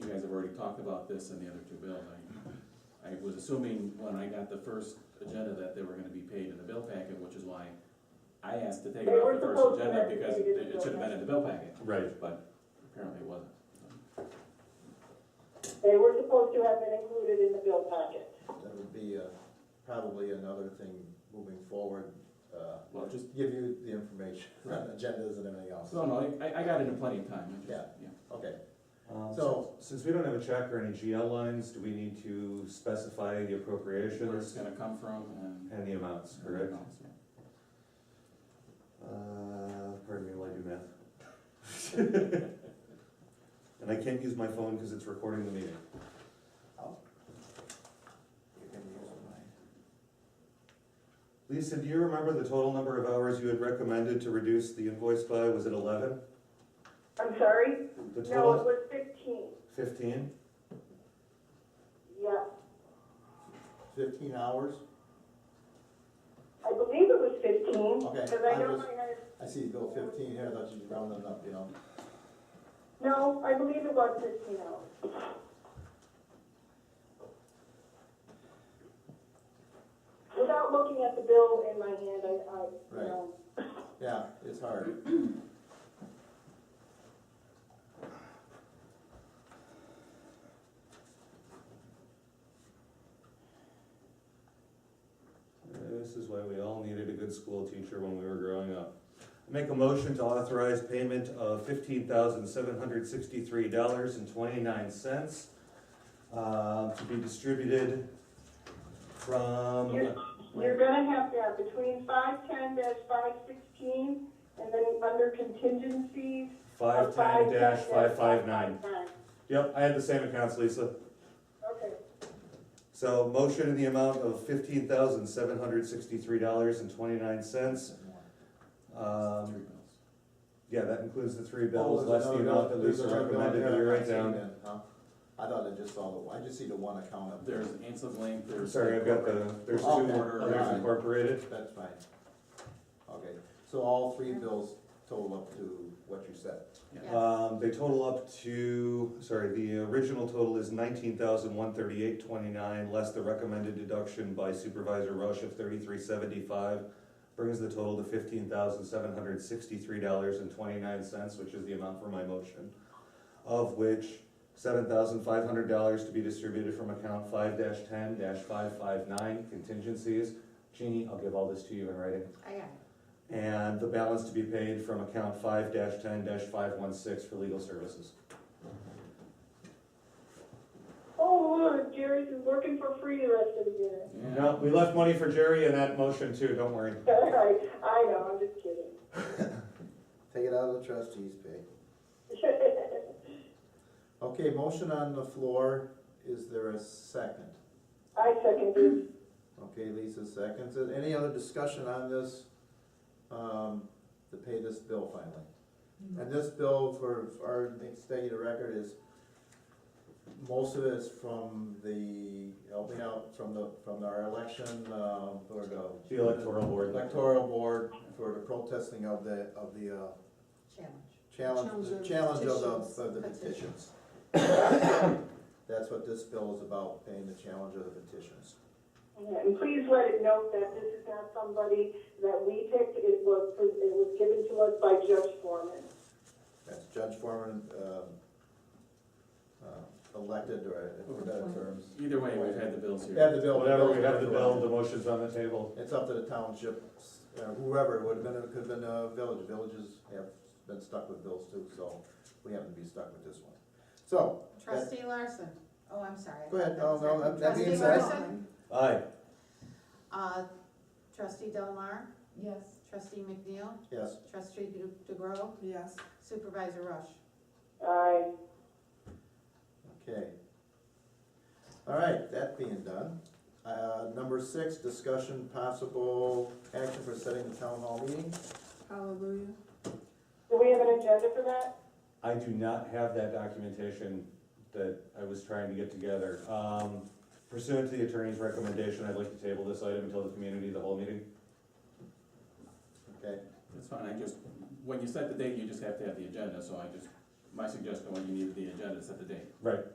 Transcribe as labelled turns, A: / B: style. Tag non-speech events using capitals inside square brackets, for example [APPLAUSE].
A: talked about this in the other two bills. I, I was assuming when I got the first agenda that they were gonna be paid in the bill packet, which is why I asked to take it
B: They were
A: off the
B: supposed
A: first
B: to
A: agenda
B: have
A: because
B: been paid in
A: it
B: the
A: should have been in the bill packet,
C: Right,
A: but apparently it wasn't.
B: They were supposed to have been included in the bill packet.
D: That would be uh, probably another thing moving forward, uh,
A: Well, just,
D: give you the information, [LAUGHS]
A: Right.
D: agendas and everything else.
A: no, no, I, I got it in plenty of time. I just-
D: Yeah. Okay,
C: um,
D: So-
C: so, since we don't have a check or any GL lines, do we need to specify
A: Where
C: the
A: it's
C: appropriations
A: gonna come from and.
C: and the amounts, correct?
A: Yeah.
C: Uh, pardon me while I do math. [LAUGHS] And I can't use my phone because it's recording the meeting.
D: you can use mine.
C: Lisa, do you remember the total number of hours you had recommended to reduce the invoice by, was it eleven?
B: I'm sorry?
C: The
B: No, it
C: total,
B: was fifteen,
C: fifteen?
B: yeah.
D: Fifteen hours?
B: I believe it was fifteen.
D: Okay,
B: Cause I
D: I
B: know
D: was-
B: I had,
D: I see you go fifteen here, I thought you rounded up, you know.
B: no, I believe it was fifteen hours. Without looking at the bill in my hand, I, I, you
D: Right.
B: know.
D: Yeah, it's hard.
C: This is why we all needed a good school teacher when we were growing up. Make a motion to authorize payment of fifteen thousand seven hundred sixty-three dollars and twenty-nine cents uh, to be distributed from,
B: You're- You're gonna have that between five ten five sixteen, and then under contingencies.
C: Five ten dash five five nine. Yep, I had the same accounts, Lisa.
B: Okay,
C: So motion in the amount of fifteen thousand seven hundred sixty-three dollars and twenty-nine cents.
A: Three
C: Yeah,
A: bills.
C: that includes the three
D: Oh,
C: bills,
D: there's
C: less the
D: another bill-
C: amount that
D: there's
C: Lisa
D: another bill
C: recommended
D: here
C: that we
D: I'm
C: write
D: not
C: down.
D: seeing it, huh? I thought I just saw the, I just see the one account up there.
A: There's Ansel's Lane,
C: I'm
A: there's.
C: sorry, I've got the, there's two,
D: Okay.
C: there's incorporated.
D: That's fine. Okay, so all three bills total up to what you said.
A: Yeah.
C: Um, they total up to, sorry, the original total is nineteen thousand one thirty-eight twenty-nine, less the recommended deduction by Supervisor Rush of thirty-three seventy-five, brings the total to fifteen thousand seven hundred sixty-three dollars and twenty-nine cents, which is the amount for my motion, of which seven thousand five hundred dollars to be distributed from account five ten five five nine contingencies. Jeannie, I'll give all this to you in writing.
E: I got it.
C: And the balance to be paid from account five ten five one six for legal services.
B: oh, look, Jerry's is working for free the rest of the year. [LAUGHS]
A: Yeah.
C: No, we left money for Jerry in that motion too, don't worry.
B: Sorry, I know, I'm just kidding. [LAUGHS]
D: Take it out of the trustees' pay. Okay, motion on the floor, is there a second?
B: I second this,
D: Okay, Lisa seconds it, any other discussion on this, um, to pay this bill finally? And this bill for, for our executive record is, most of it is from the, help me out, from the, from our election, uh, or the.
C: The electoral board.
D: Electoral board for the protesting of the, of the, uh,
E: Challenge.
D: challenge,
E: Challenge of
D: challenge of
E: petitions.
D: the, of the
E: Petitions.
D: petitions. That's what this bill is about, paying the challenge of the petitions.
B: and please let it note that this is not somebody that we picked, it was, it was given to us by Judge Foreman.
D: That's Judge Foreman, um, uh, elected or, for better terms.
A: Either way, we've had the bills here.
D: Have the bill.
C: Whatever, we have the bill, the motion's on the table.
D: It's up to the township, uh, whoever, it would have been, it could have been a village, villages have been stuck with bills too, so we happen to be stuck with this one. So,
E: Trustee Larson, oh, I'm sorry. I
D: Go ahead.
E: thought
D: No, no,
E: that was-
D: that being said-
E: Trustee Larson,
C: Aye.
E: uh, trustee Delmar,
F: Yes.
E: trustee McNeil,
D: yes,
E: trustee De- DeGrove,
F: Yes.
E: supervisor Rush.
B: I,
D: okay. All right, that being done, uh, number six, discussion possible action for setting the town hall meeting.
F: Hallelujah.
B: do we have an agenda for that?
C: I do not have that documentation that I was trying to get together. Um, Pursuant to the attorney's recommendation, I'd like to table this item until the community, the whole meeting.
D: Okay,
A: That's fine, I just, when you set the date, you just have to have the agenda, so I just, my suggestion when you needed the agenda, set the date.
C: Right.